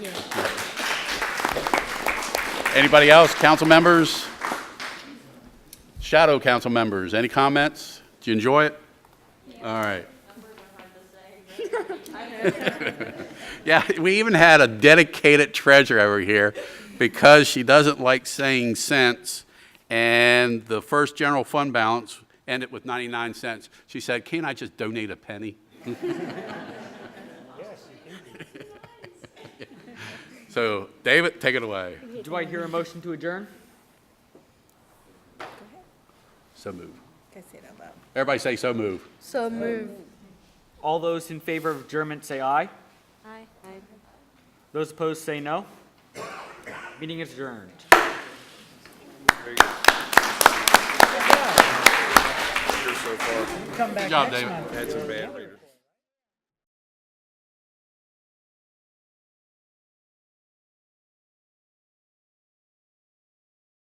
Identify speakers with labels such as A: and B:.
A: Anybody else? Council members? Shadow council members, any comments? Did you enjoy it? All right. Yeah, we even had a dedicated treasurer over here because she doesn't like saying cents. And the first general fund balance ended with 99 cents. She said, can't I just donate a penny? So, David, take it away.
B: Do I hear a motion to adjourn?
A: So move.
C: Can I say it out loud?
A: Everybody say so move.
C: So move.
B: All those in favor of adjournment say aye.
D: Aye.
B: Those opposed say no. Meeting is adjourned.
A: Good job, David.
E: That's a bad rate.